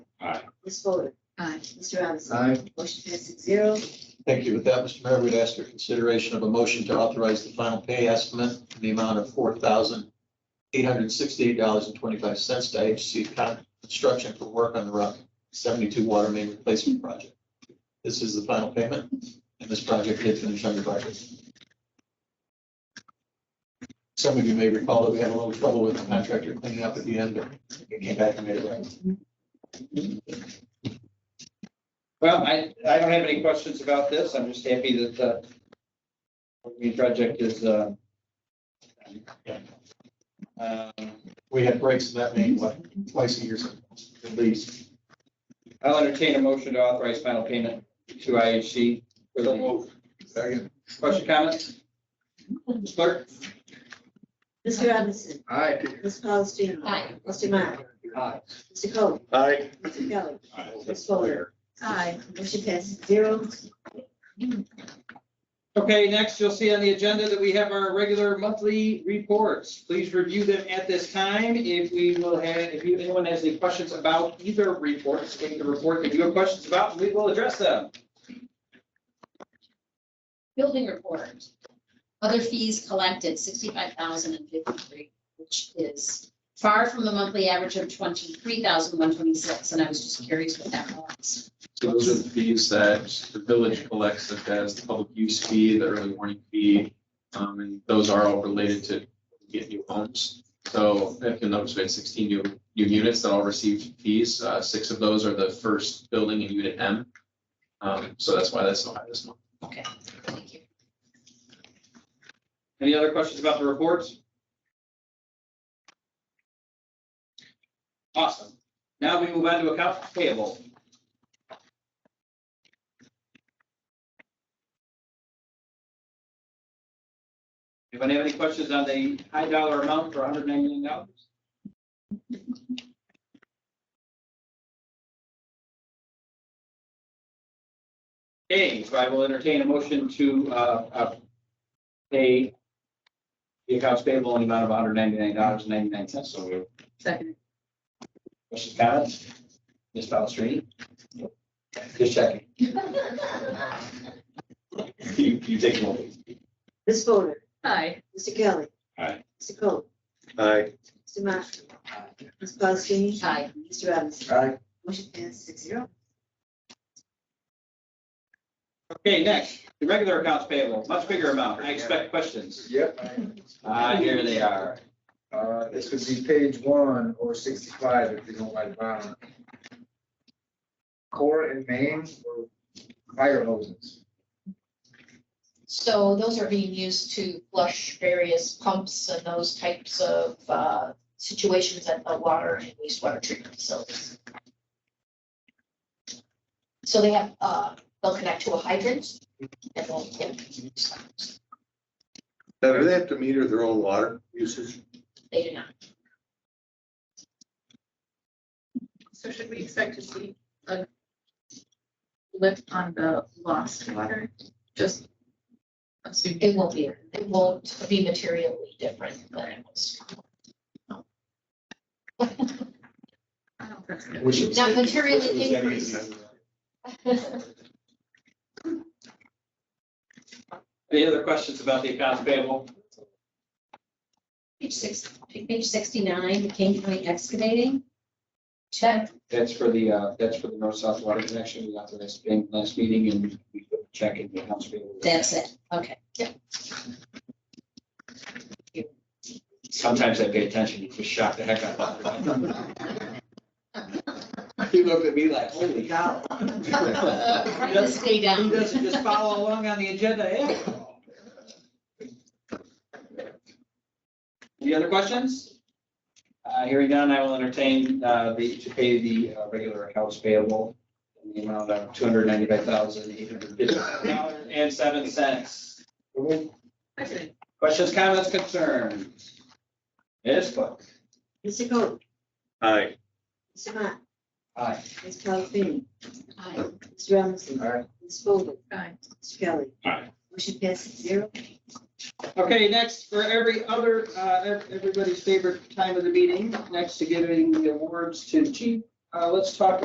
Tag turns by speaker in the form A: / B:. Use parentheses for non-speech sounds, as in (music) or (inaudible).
A: Ms. Fuller.
B: Aye.
A: Mr. Robinson.
C: Aye.
A: Motion passed six zero.
D: Thank you. With that, Mr. Mayor, we'd ask for consideration of a motion to authorize the final pay estimate in the amount of four thousand eight hundred sixty-eight dollars and twenty-five cents to HC Construction for work on the Rock seventy-two water main replacement project. This is the final payment, and this project did finish under budget. Some of you may recall that we had a little trouble with the contractor cleaning up at the end, but it came back and made it right.
E: Well, I, I don't have any questions about this. I'm just happy that the Green project is, uh, um,
D: We had breaks in that main, what, twice a year sometimes, at least.
E: I'll entertain a motion to authorize final payment to IHC. for the- Question, comments? Ms. Clerk?
A: Mr. Robinson.
C: Aye.
A: Ms. Paulson.
B: Aye.
A: Mr. Meyer.
E: Aye.
A: Mr. Cole.
C: Aye.
A: Mr. Kelly.
C: Aye.
A: Ms. Fuller.
B: Aye.
A: Motion passes zero.
E: Okay, next you'll see on the agenda that we have our regular monthly reports. Please review them at this time. If we will have, if you- anyone has any questions about either report, state the report that you have questions about, we will address them.
F: Building report. Other fees collected, sixty-five thousand and fifty-three, which is far from the monthly average of twenty-three thousand one twenty-six, and I was just curious what that was.
G: So those are the fees that the village collects, such as the public use fee, the early warning fee, um, and those are all related to get new homes. So if you'll notice, we had sixteen new, new units that all received fees. Uh, six of those are the first building in unit M. Um, so that's why that's so high this month.
F: Okay, thank you.
E: Any other questions about the reports? Awesome. Now we move on to accounts payable. Anybody have any questions on the high dollar amount for $199? dollars? Okay, so I will entertain a motion to, uh, uh, pay the accounts payable in the amount of hundred ninety-nine dollars and ninety-nine cents. So moved.
F: (laughs)
B: Second.
E: Questions, comments? Ms. Palastrellini? Just checking. (laughs) You, you take them over.
A: Ms. Fuller.
B: Aye.
A: Mr. Kelly.
E: Aye.
A: Mr. Cole.
C: Aye.
A: Mr. Meyer. Ms. Paulson.
F: Aye.
A: Mr. Robinson.
C: Aye.
A: Motion passes six zero.
E: Okay, next, the regular accounts payable, much bigger amount. I expect questions.
C: Yep.
E: Ah, here they are.
C: Uh, this would be page one or sixty-five if you don't like bottom. Core and main were fire hoses.
H: So those are being used to flush various pumps and those types of uh, situations at the water and wastewater treatment facilities. So they have, uh, they'll connect to a hydrant and they'll get,
I: Now, do they have to meter their own water usage?
H: they do not.
B: So should we expect to see a lift on the lost water? Just assuming.
H: It won't be, it won't be materially different than it was.
B: I don't think so.
D: We should-
H: Not materially
D: It was
H: increased.
D: that easy.
E: Any other questions about the accounts payable?
F: Page six, page sixty-nine, King County Excavating. Check,
E: That's for the, uh, that's for the north-south water connection. We got to this thing last meeting and we put the check in the accounts payable.
F: that's it, okay.
E: Sometimes I pay attention, you just shock the heck out of me. He looked at me like, holy
F: (laughs)
E: cow.
B: (laughs)
F: Write this day
E: He
F: down.
E: doesn't
F: (laughs)
E: just follow along on the agenda, eh? Any other questions? Uh, hearing none, I will entertain, uh, the, to pay the uh, regular accounts payable in the amount of two hundred ninety-five thousand, eight hundred fifty dollars and seven cents.
B: Second.
E: Questions, comments, concerns? Yes, but,
A: Mr. Cole.
I: Aye.
A: Mr. Meyer.
E: aye.
A: Ms. Paulson.
F: Aye.
A: Mr. Robinson.
C: Aye.
A: Ms. Fuller.
B: Aye.
A: Mr. Kelly.
E: Aye.
A: Motion passes zero.
E: Okay, next, for every other, uh, ev- everybody's favorite time of the meeting, next to giving the awards to chief, uh, let's talk